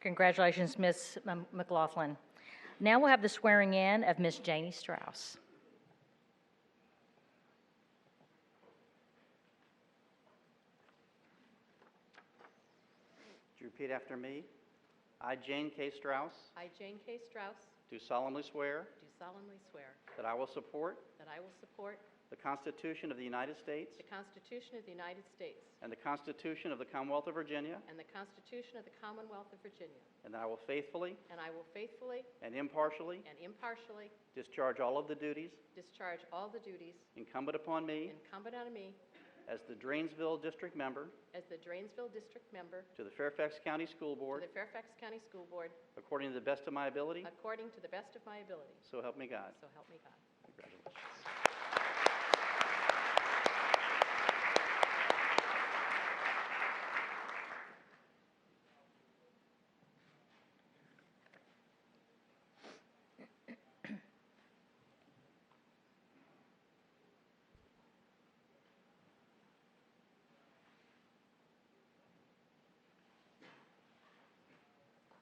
Congratulations, Ms. M- McLaughlin. Now we'll have the swearing in of Ms. Janie Strauss. Would you repeat after me? I, Jane K. Strauss, I, Jane K. Strauss, do solemnly swear do solemnly swear that I will support that I will support the Constitution of the United States the Constitution of the United States and the Constitution of the Commonwealth of Virginia, and the Constitution of the Commonwealth of Virginia, and that I will faithfully and I will faithfully and impartially and impartially discharge all of the duties discharge all the duties incumbent upon me incumbent on me as the Drainsville District Member as the Drainsville District Member to the Fairfax County School to Board the Fairfax County School Board according to the best of my ability, according to the best of my ability. so help me God. So help me God. Congratulations.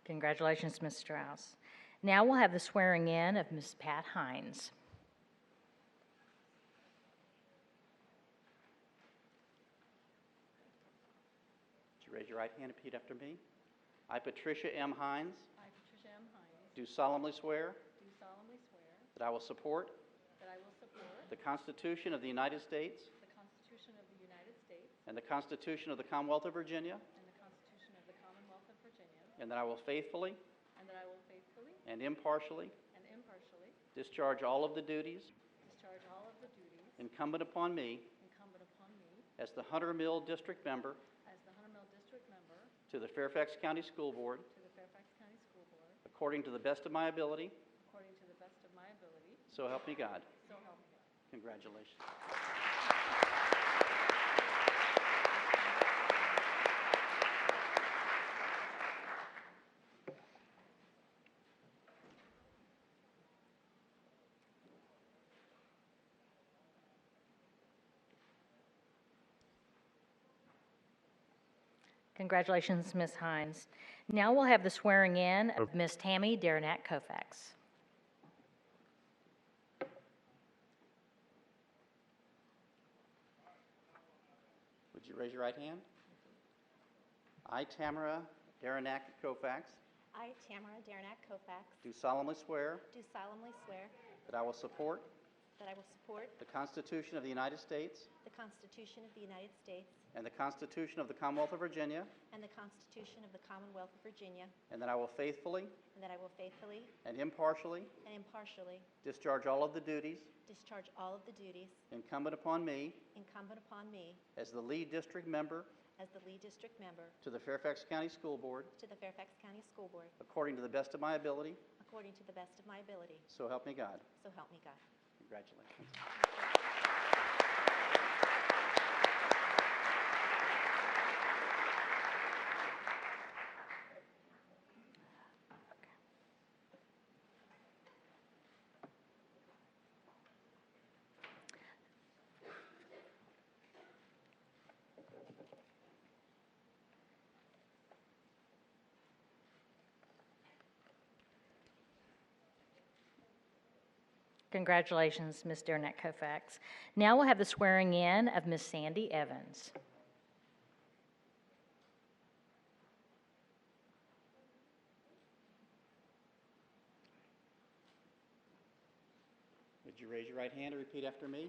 Congratulations, Ms. Strauss. Now we'll have the swearing in of Ms. Pat Hines. Would you raise your right hand and repeat after me? I, Patricia M. Hines, I, Patricia M. Hines, do solemnly swear do solemnly swear that I will support that I will support the Constitution of the United States the Constitution of the United States and the Constitution of the Commonwealth of Virginia, and the Constitution of the Commonwealth of Virginia, and that I will faithfully and that I will faithfully and impartially and impartially discharge all of the duties discharge all of the duties incumbent upon me incumbent upon me as the Hunter Mill District Member as the Hunter Mill District Member to the Fairfax County School Board to the Fairfax County School Board according to the best of my ability, according to the best of my ability, so help me God. so help me God. Congratulations. Congratulations, Ms. Hines. Now we'll have the swearing in of Ms. Tammy Darnat Kofax. Would you raise your right hand? I, Tamara Daranack Kofax, I, Tamara Daranack Kofax, do solemnly swear do solemnly swear that I will support that I will support the Constitution of the United States the Constitution of the United States and the Constitution of the Commonwealth of Virginia, and the Constitution of the Commonwealth of Virginia, and that I will faithfully and that I will faithfully and impartially and impartially discharge all of the duties discharge all of the duties incumbent upon me incumbent upon me as the lead district member as the Lee District Member to the Fairfax County School Board to the Fairfax County School Board, according to the best of my ability, according to the best of my ability, so help me God. so help me God. Congratulations. Congratulations, Ms. Darnat Kofax. Now we'll have the swearing in of Ms. Sandy Evans. Would you raise your right hand and repeat after me?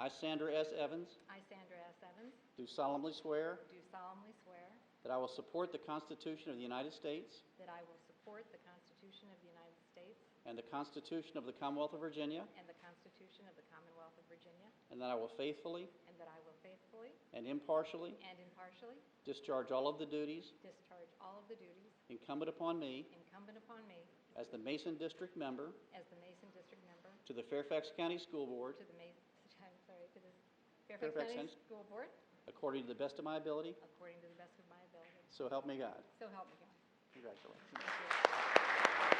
I, Sandra S. Evans, I, Sandra S. Evans, do solemnly swear do solemnly swear that I will support the Constitution of the United States that I will support the Constitution of the United States and the Constitution of the Commonwealth of Virginia, and the Constitution of the Commonwealth of Virginia, and that I will faithfully and that I will faithfully and impartially and impartially discharge all of the duties discharge all of the duties incumbent upon me incumbent upon me as the Mason District Member as the Mason District Member to the Fairfax County School Board to the Mason, I'm sorry, to the Fairfax Fairfax County County- School Board according to the best of my ability, according to the best of my ability. so help me God. So help me God. Congratulations. Thank you.